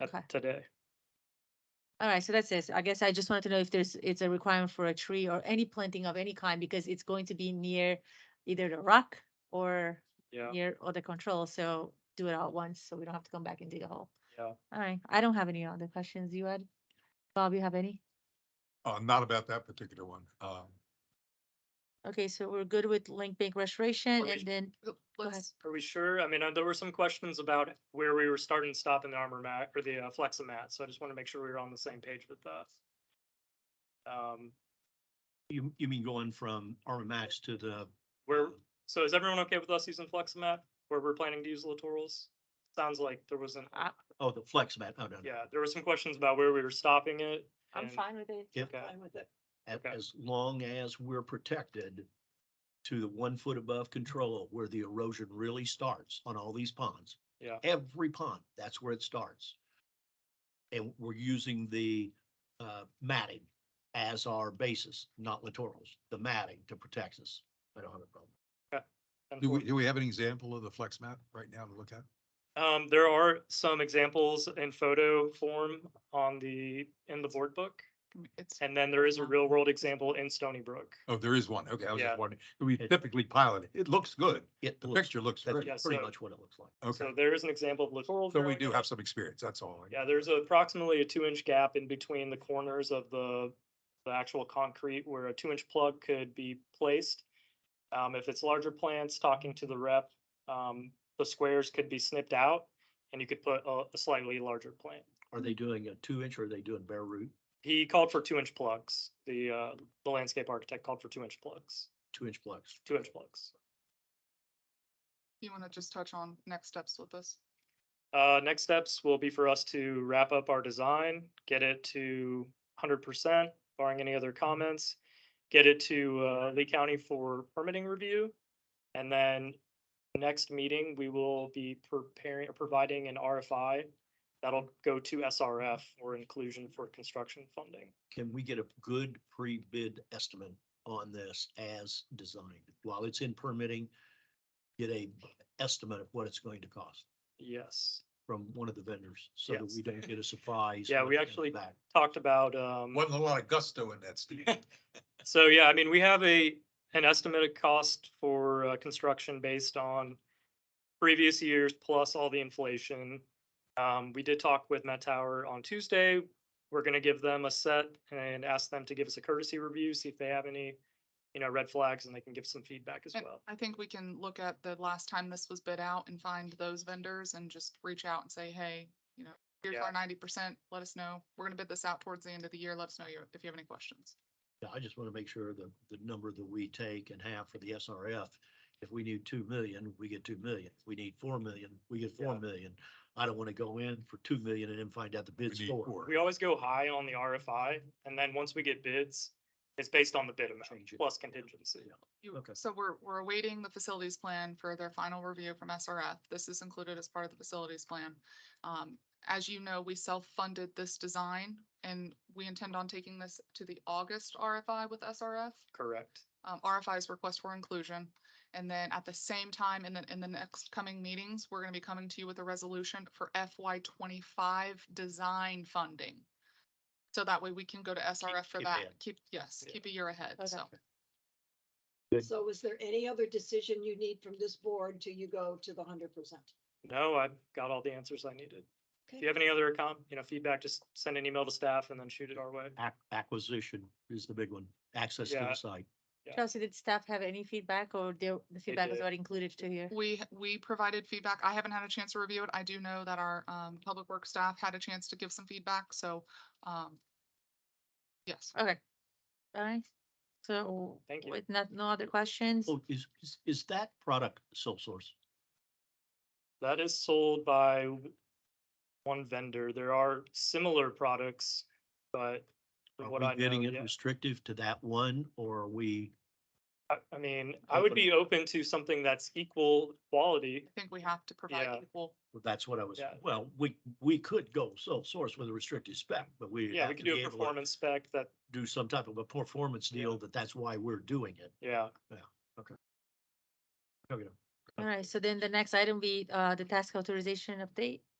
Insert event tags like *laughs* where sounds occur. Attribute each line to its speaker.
Speaker 1: at
Speaker 2: Okay.
Speaker 1: today.
Speaker 2: All right, so that's it. I guess I just wanted to know if there's, it's a requirement for a tree or any planting of any kind because it's going to be near either the rock or
Speaker 1: Yeah.
Speaker 2: near other control, so do it all at once, so we don't have to come back and dig a hole.
Speaker 1: Yeah.
Speaker 2: All right, I don't have any other questions. You, Ed? Bob, you have any?
Speaker 3: Uh, not about that particular one. Um,
Speaker 2: Okay, so we're good with link bank restoration
Speaker 1: Okay.
Speaker 2: and then, ahead.
Speaker 1: Let's- Are we sure? I mean, uh, there were some questions about where we were starting and stopping the armor mat or the uh, Fleximat, so I just want to make sure we were on the same page with that. Um,
Speaker 4: You, you mean going from Armor Max to the,
Speaker 1: where, so is everyone okay with us using Fleximat where we're planning to use littorals? Sounds like there wasn't,
Speaker 4: oh, the flex mat, oh, no. no.
Speaker 1: yeah, there were some questions about where we were stopping it.
Speaker 2: I'm
Speaker 1: and-
Speaker 2: fine with it.
Speaker 4: Yeah.
Speaker 1: Okay.
Speaker 4: As,
Speaker 1: Okay.
Speaker 4: as long as we're protected to the one foot above control where the erosion really starts on all these ponds.
Speaker 1: Yeah.
Speaker 4: Every pond, that's where it starts. And we're using the, uh, matting as our basis, not littorals, the matting to protect us. I don't have a problem.
Speaker 1: and
Speaker 3: do
Speaker 1: for-
Speaker 3: we, do we have an example of the flex map right now to look at?
Speaker 1: Um, there are some examples in photo form on the, in the board book.
Speaker 2: It's
Speaker 1: And then there is a
Speaker 2: Um,
Speaker 1: real world example in Stony Brook.
Speaker 3: Oh, there is one. Okay, I was
Speaker 1: Yeah.
Speaker 3: just wondering. We
Speaker 4: It-
Speaker 3: typically pilot it. It looks good.
Speaker 4: It
Speaker 3: The
Speaker 4: looks-
Speaker 3: picture looks
Speaker 4: That's
Speaker 3: great.
Speaker 1: Yes.
Speaker 4: pretty
Speaker 1: so-
Speaker 4: much what it looks like.
Speaker 3: Okay,
Speaker 1: So there is an example of littoral.
Speaker 3: so we
Speaker 1: drilling.
Speaker 3: do have some experience. That's all.
Speaker 1: Yeah, there's approximately a two inch gap in between the corners of the, the actual concrete where a two inch plug could be placed. Um, if it's larger plants, talking to the rep, um, the squares could be snipped out and you could put a a slightly larger plant.
Speaker 4: Are they doing a two inch or are they doing bare root?
Speaker 1: He called for two inch plugs. The, uh, the landscape architect called for two inch plugs,
Speaker 4: Two inch plugs.
Speaker 1: two inch plugs.
Speaker 5: You want to just touch on next steps with this?
Speaker 1: Uh, next steps will be for us to wrap up our design, get it to hundred percent, barring any other comments. Get it to, uh, Lee County for permitting review. And then next meeting, we will be preparing, providing an RFI. That'll go to SRF or inclusion for construction funding.
Speaker 4: Can we get a good pre-bid estimate on this as designed? While it's in permitting, get a estimate of what it's going to cost
Speaker 1: Yes.
Speaker 4: from one of the vendors so that
Speaker 1: Yes.
Speaker 4: we don't get a surprise.
Speaker 1: Yeah,
Speaker 4: when
Speaker 1: we
Speaker 4: it comes
Speaker 1: actually-
Speaker 4: back.
Speaker 1: Talked about, um.
Speaker 3: Wasn't a lot of gusto in that, Steve. *laughs*
Speaker 1: So yeah, I mean, we have a, an estimated cost for uh, construction based on previous years plus all the inflation. Um, we did talk with Met Tower on Tuesday. We're gonna give them a set and ask them to give us a courtesy review, see if they have any, you know, red flags and they can give some feedback as
Speaker 5: And
Speaker 1: well.
Speaker 5: I think we can look at the last time this was bid out and find those vendors and just reach out and say, hey, you know, here's
Speaker 1: Yeah.
Speaker 5: our ninety percent, let us know. We're gonna bid this out towards the end of the year. Let us know your- if you have any questions.
Speaker 4: Yeah, I just want to make sure the, the number that we take and have for the SRF, if we need two million, we get two million. If we need four million, we get four
Speaker 1: Yeah.
Speaker 4: million. I don't want to go in for two million and then find out the
Speaker 3: We
Speaker 4: bid's
Speaker 3: need
Speaker 4: for.
Speaker 3: four.
Speaker 1: We always go high on the RFI and then once we get bids, it's based on the bid amount
Speaker 4: Change it.
Speaker 1: plus contingency.
Speaker 5: You-
Speaker 4: Okay.
Speaker 5: So we're, we're awaiting the facilities plan for their final review from SRF. This is included as part of the facilities plan. Um, as you know, we self-funded this design and we intend on taking this to the August RFI with SRF.
Speaker 1: Correct.
Speaker 5: um, RFI's request for inclusion. And then at the same time, in the, in the next coming meetings, we're gonna be coming to you with a resolution for FY twenty-five design funding. So that way we can go to SRF for
Speaker 4: keep
Speaker 5: that,
Speaker 4: ahead.
Speaker 5: keep, yes,
Speaker 1: Yeah.
Speaker 5: keep a year ahead,
Speaker 2: Okay.
Speaker 5: so.
Speaker 6: So is there any other decision you need from this board till you go to the hundred percent?
Speaker 1: No, I've got all the answers I needed. If
Speaker 6: Okay.
Speaker 1: you have any other com, you know, feedback, just send an email to staff and then shoot it our way.
Speaker 4: Ac- Acquisition is the big one, access to
Speaker 1: Yeah.
Speaker 4: the site.
Speaker 1: Yeah.
Speaker 2: Chelsea, did staff have any feedback or the, the feedback was
Speaker 1: did.
Speaker 2: already included to here?
Speaker 5: We, we provided feedback. I haven't had a chance to review it. I do know that our, um, public works staff had a chance to give some feedback, so, um, yes.
Speaker 2: Okay. All right. So
Speaker 1: Thank you.
Speaker 2: with not, no other questions?
Speaker 4: Oh, is, is, is that product sole source?
Speaker 1: That is sold by one vendor. There are similar products, but
Speaker 4: Are
Speaker 1: from what I
Speaker 4: we
Speaker 1: know,
Speaker 4: bidding it
Speaker 1: yeah.
Speaker 4: restrictive to that one or are we?
Speaker 1: I, I mean, I would
Speaker 4: Open.
Speaker 1: be open to something that's equal quality.
Speaker 5: I think we have to provide
Speaker 1: Yeah.
Speaker 5: equal,
Speaker 4: Well, That's what I was,
Speaker 1: Yeah.
Speaker 4: well, we, we could go sole source with a restricted spec, but we.
Speaker 1: Yeah, we could do a performance spec that,
Speaker 4: Do some type of a performance
Speaker 1: Yeah.
Speaker 4: deal that that's why we're doing it.
Speaker 1: yeah,
Speaker 4: Okay.
Speaker 2: All right. So then the next item be, uh, the task authorization update.